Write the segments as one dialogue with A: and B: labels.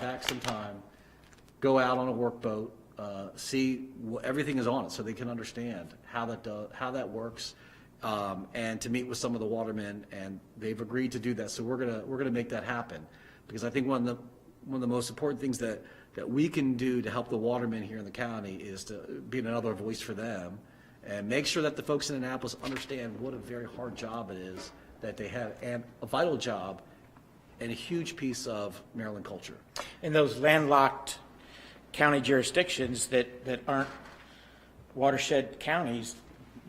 A: back some time, go out on a workboat, uh, see, wh- everything is on it, so they can understand how that, do- how that works, um, and to meet with some of the watermen, and they've agreed to do that, so we're gonna, we're gonna make that happen. Because I think one of the, one of the most important things that, that we can do to help the watermen here in the county is to be another voice for them, and make sure that the folks in Annapolis understand what a very hard job it is that they have, and a vital job, and a huge piece of Maryland culture.
B: in those landlocked county jurisdictions that, that aren't watershed counties,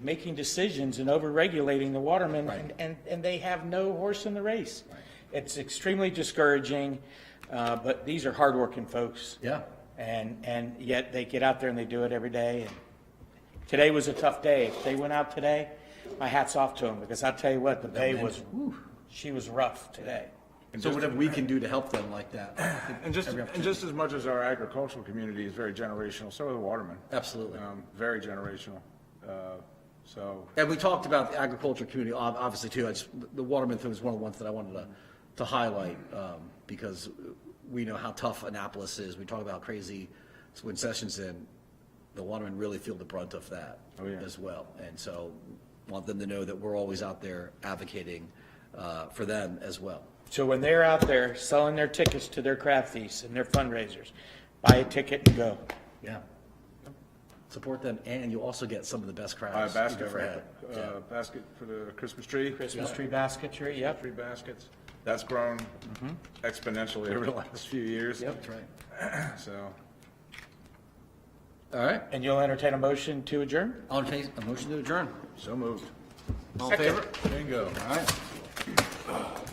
B: making decisions and over-regulating the watermen, and,
A: Right.
B: and, and they have no horse in the race. It's extremely discouraging, uh, but these are hardworking folks.
A: Yeah.
B: And, and yet they get out there and they do it every day. And Today was a tough day. If they went out today, my hat's off to them, because I'll tell you what, the day was, she was rough today.
A: So whatever we can do to help them like that. I think
C: And just,
A: every
C: and just as much as our agricultural community is very generational, so are the watermen.
A: Absolutely.
C: Um, Very generational. Uh, So,
A: And we talked about the agriculture community, ob- obviously, too. I just, the Waterman thing was one of the ones that I wanted to, to highlight, um, because we know how tough Annapolis is. We talk about how crazy, so when Sessions in, the Watermen really feel the brunt of that
C: Oh, yeah.
A: as well. And so want them to know that we're always out there advocating, uh, for them as well.
B: So when they're out there selling their tickets to their craft feasts and their fundraisers, buy a ticket and go.
A: Yeah. Support them, and you also get some of the best
C: uh,
A: crowds.
C: basket,
A: you've ever
C: right?
A: had. Yeah.
C: Uh, basket for the Christmas tree.
B: Christmas tree basketry, yep.
C: Tree baskets. That's grown
A: Mm-hmm.
C: exponentially over the last few years.
A: That's right.
C: So,
A: All right,
B: And you'll entertain a motion to adjourn?
A: I'll take a motion to adjourn.
C: so moved.
A: All in favor?
C: Bingo. All right.